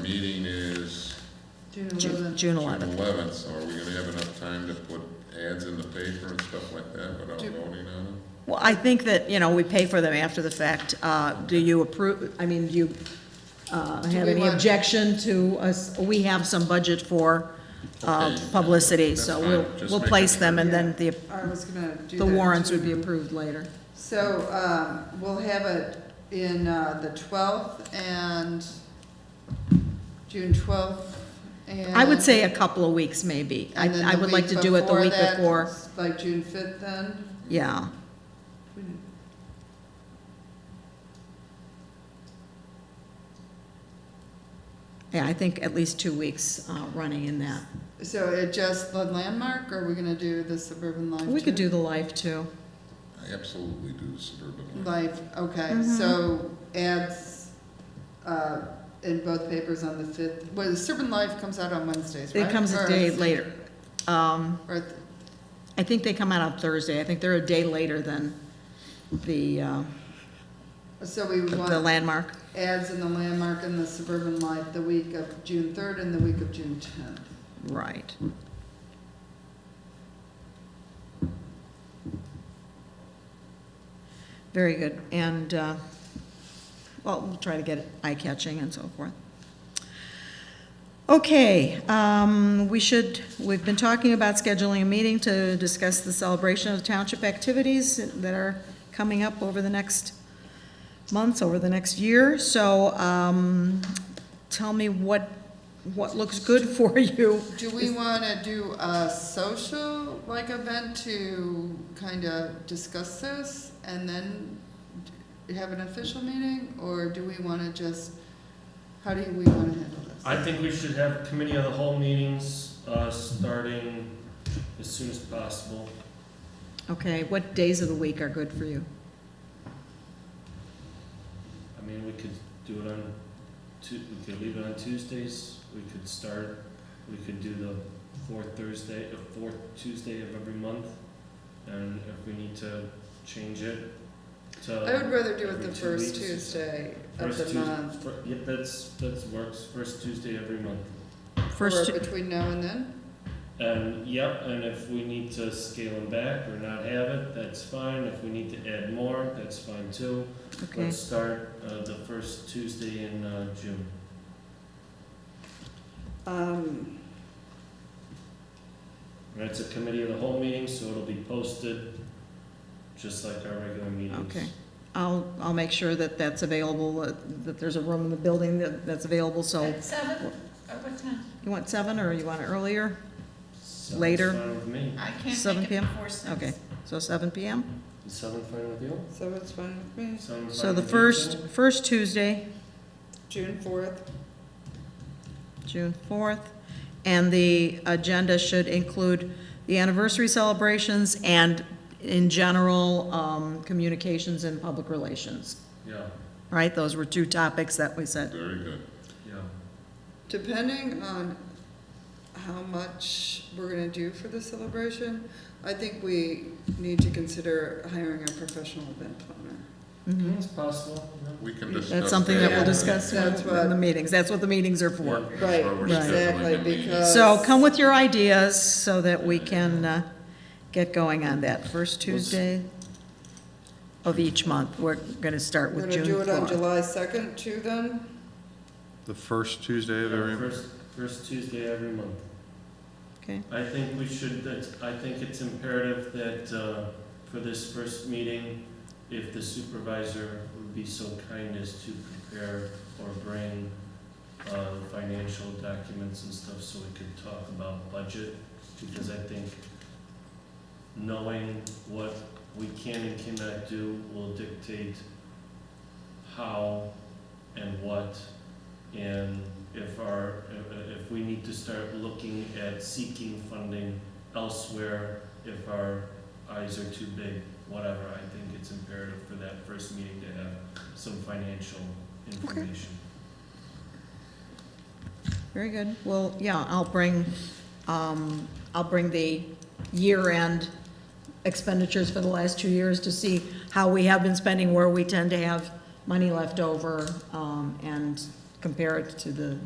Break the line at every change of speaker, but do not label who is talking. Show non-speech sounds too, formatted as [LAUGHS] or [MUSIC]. meeting is
June
Ju-
11th.
June
June
11th.
eleventh, so are we gonna have enough time to put ads in the paper and stuff like that without
Do-
voting on them?
Well, I think that, you know, we pay for them after the fact. Uh, Do you approve, I mean, do you uh, have
we
any
want-
objection to us, we have some budget for uh,
Okay,
publicity,
that's
so
fine.
we'll,
Just
we'll
making
place them, and then
Yeah,
the
I was gonna do
the
that,
warrants would
too.
be approved later.
So, um, we'll have it in, uh, the twelfth and June twelfth and.
I would say a couple of weeks, maybe. I
and then
I
the
would like
week
to do it the week
that,
before.
Like June fifth then?
Yeah, yeah, I think at least two weeks uh, running in that.
So it just the landmark, or are we gonna do the suburban life?
We could
too?
do the life, too.
I absolutely do suburban life.
Life, okay,
Mm-hmm.
so ads, uh, in both papers on the fifth, well, the suburban life comes out on Wednesdays, right?
It comes a
Or-
day later. Um,
Or, th-
I think they come out on Thursday. I think they're a day later than the, uh,
so we would want.
the landmark.
ads in the landmark and the suburban life the week of June third and the week of June tenth.
Right. Very good. And, uh, well, we'll try to get it eye-catching and so forth. Okay, um, we should, we've been talking about scheduling a meeting to discuss the celebration of township activities that are coming up over the next months, over the next year. So um, tell me what, what looks good [LAUGHS] for you.
Do we wanna do a social, like, event to kinda discuss this and then d- have an official meeting, or do we wanna just, how do we wanna handle this?
I think we should have committee of the whole meetings, uh, starting as soon as possible.
Okay, what days of the week are good for you?
I mean, we could do it on Tu- we could leave it on Tuesdays, we could start, we could do the fourth Thursday, the fourth Tuesday of every month. And if we need to change it to.
I would rather do it
every
the
two
first
weeks.
Tuesday of
First
the
Tues-
month,
fir- Yep, that's, that's works, first Tuesday every month.
or
First,
between now and then,
And, Um, yep, and if we need to scale them back or not have it, that's fine. If we need to add more, that's fine too.
okay,
Let's start uh, the first Tuesday in uh, June.
um,
And it's a committee of the whole meeting, so it'll be posted just like our regular meetings.
Okay. I'll, I'll make sure that that's available, uh, that there's a room in the building that, that's available, so,
At seven, or what time?
you want seven, or you want it earlier?
Sounds
Later.
fine with me.
I can't
7
make it
p.m.?
before six.
Okay, so seven PM?
Is seven fine with you?
so it's fine with me,
Seven
So
fine
the
with you,
first,
Jim?
first Tuesday,
June fourth,
June fourth, and the agenda should include the anniversary celebrations and, in general, um, communications and public relations,
Yeah,
right? Those were two topics that we said.
Very good.
yeah.
Depending on how much we're gonna do for the celebration, I think we need to consider hiring a professional event planner.
Mhm.
It's possible, yeah.
We can discuss.
That's something that we'll
Yeah.
discuss in
That's
in the
what-
meetings, that's what the meetings are for.
Yeah.
That's why we're
Right.
Exactly,
scheduling a meeting.
because-
So come with your ideas so that we can uh, get going on that first Tuesday of each month. We're going to start
We're
with
gonna
June
do it on
4th.
July second too then?
The first Tuesday of every,
First, first Tuesday every month.
Okay,
I think we should, that's- I think it's imperative that uh, for this first meeting, if the supervisor would be so kind as to prepare or bring uh, financial documents and stuff so we could talk about budget, because I think knowing what we can and cannot do will dictate how and what and if our, if- if we need to start looking at seeking funding elsewhere, if our eyes are too big, whatever, I think it's imperative for that first meeting to have some financial information.
very good. Well, yeah, I'll bring, um, I'll bring the year-end expenditures for the last two years to see how we have been spending, where we tend to have money left over, um, and compare it to the